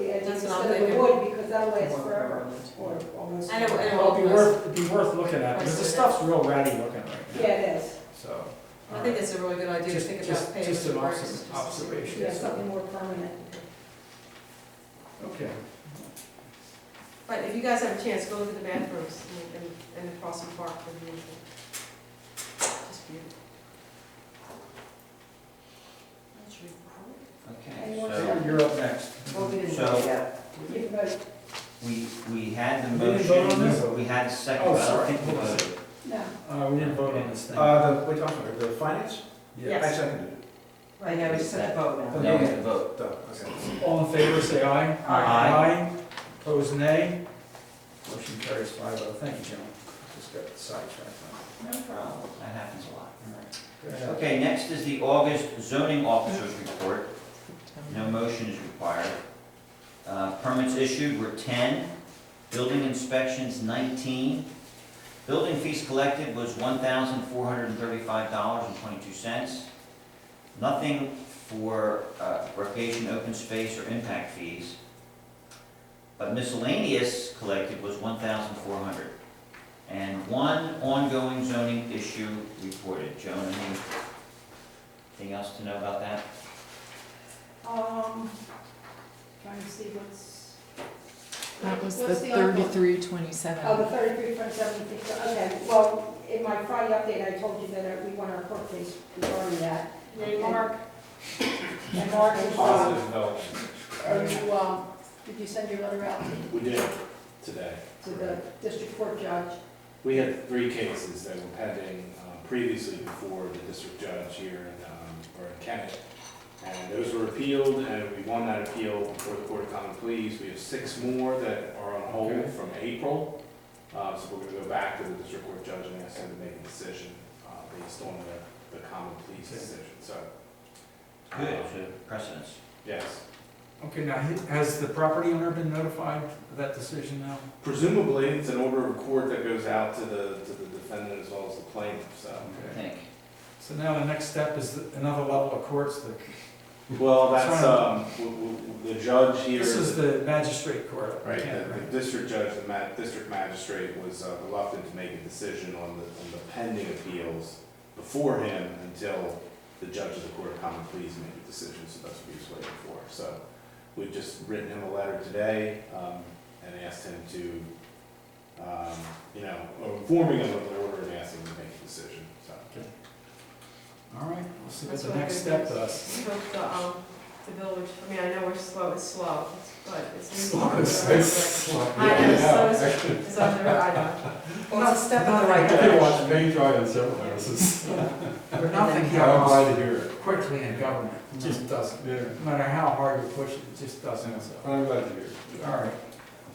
instead of the wood, because that'll last forever, or almost. And it- and it Well, won't it'd be worth, it'd be worth looking at, because the stuff's real ratty looking right now, Yeah, it is, so. I think it's a really good idea to Just- think just- about paving. just an versus obs- just- observation. yeah, something more permanent. Okay. But if you guys have a chance, go look at the bathrooms and, and- and across the park, they're beautiful. Just beautiful. That's your problem. And Okay, Uh, one so second. You're up next. Well, we didn't So- know yet. You can vote, we, we had the We didn't vote on this? motion, we had a second, Oh, but I don't sorry. think we voted. no, Uh, we didn't vote on this thing. Uh, the, what are you talking about, the finance? Yeah. I seconded it. I know, it's set a vote now. No, we had a vote. Duh, okay. All in favor, say aye. Aye. Aye. Opposed, nay. Motion carries five oh. Thank you, gentlemen. Just got sidetracked. No problem, that happens a lot. All right. Go ahead. Okay, next is the August zoning officer's report. No motion is required. Uh, Permits issued were 10, building inspections 19. Building fees collected was $1,435.22. Nothing for uh, recreation, open space, or impact fees. But miscellaneous collected was 1,400. And one ongoing zoning issue reported. Joan, anything else to know about that? um, trying to see what's, That was the What's the other one? thirty-three oh, the twenty-seven. thirty-three point seven six, okay, well, in my Friday update, I told you that uh, we want our court case regarding that. And Mark, and Mark, is, uh, are you, uh, did you send your letter out We did today. to the district court judge? We had three cases that were pending uh, previously before the district judge here in, um, or in Kennett. And those were appealed, and we won that appeal before the Court of Common Pleas. We have six more that are on hold Okay. from April. Uh, So we're gonna go back to the district court judge and ask him to make a decision uh, based on the, the Common Pleas decision, so. uh, Good, so precedence. Yes. Okay, now, he- has the property owner been notified of that decision now? Presumably, it's an order of court that goes out to the, to the defendant as well as the plaintiff, so. Mm-hmm. I think. So now the next step is the- another level of courts. The- Well, That's that's, fine. um, w- w- the judge here. This is the magistrate court. Right, Yeah, the- the district judge, the ma, district magistrate was uh, reluctant to make a decision on the, on the pending appeals before him until the judge of the court of common pleas made a decision, so that's what he was waiting for. So we've just written him a letter today, um, and asked him to, um, you know, informing him of the order and asking him to make a decision, so. All right, we'll see what That's the what I next think step does. We hope the, um, the village, I mean, I know we're slow, it's slow, but it's. I know, slow is, is on the road, I know. Well, it's a step in the right Not- direction. paint dry on several houses. Nothing glad happens to hear it. quickly in government. It just doesn't. Yeah, No matter how hard you push it, it just doesn't. So, I'm glad to hear it. All right.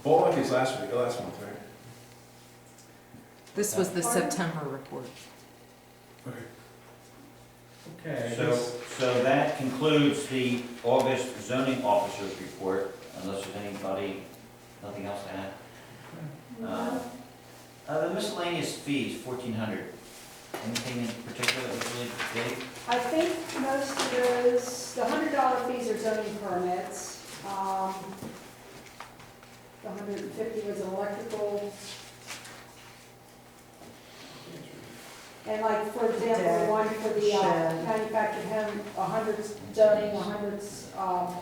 Well, like these last week, last month, right? This was the September report. Okay. I So, guess- so that concludes the August zoning officer's report, unless there's anybody, nothing else to add. Uh, uh, the miscellaneous fees, fourteen hundred. Anything in particular that was really big? I think most of those, the hundred dollar fees are zoning permits. Um, The hundred and fifty was an electrical. And like, for example, the one for the uh, Shed. manufactured home, a hundred's zoning, a hundred's, um,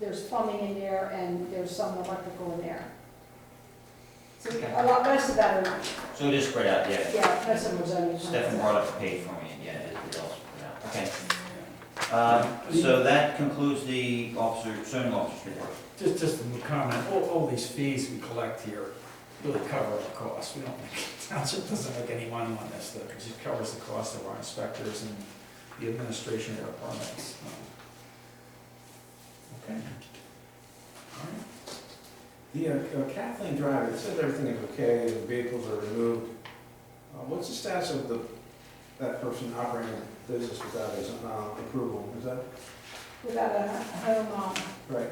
there's plumbing in there and there's some electrical in there. So a lot, most of that are, So it is spread out, yeah. yeah, most of them are zoning permits. Stefan brought up the page for me, and yeah, it it all spread out, okay. Um, so that concludes the officer, zoning officer's report. Just, just a comment, all, all these fees we collect here really cover the cost. We don't, make- township doesn't make any money on this, though, because it covers the cost of our inspectors and the administration of our permits. Okay. All right. The uh, uh, Kathleen Drive, it says everything is okay, the vehicles are removed. Uh, What's the status of the, that person operating a business without his uh, approval? Is that Without a home, um, right?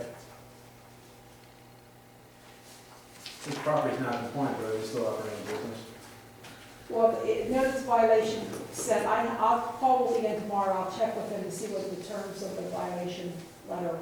The property's not compliant, but it's still operating a business. Well, it- notice violation said, I, I'll call again tomorrow, I'll check with them to see what the terms of the violation letter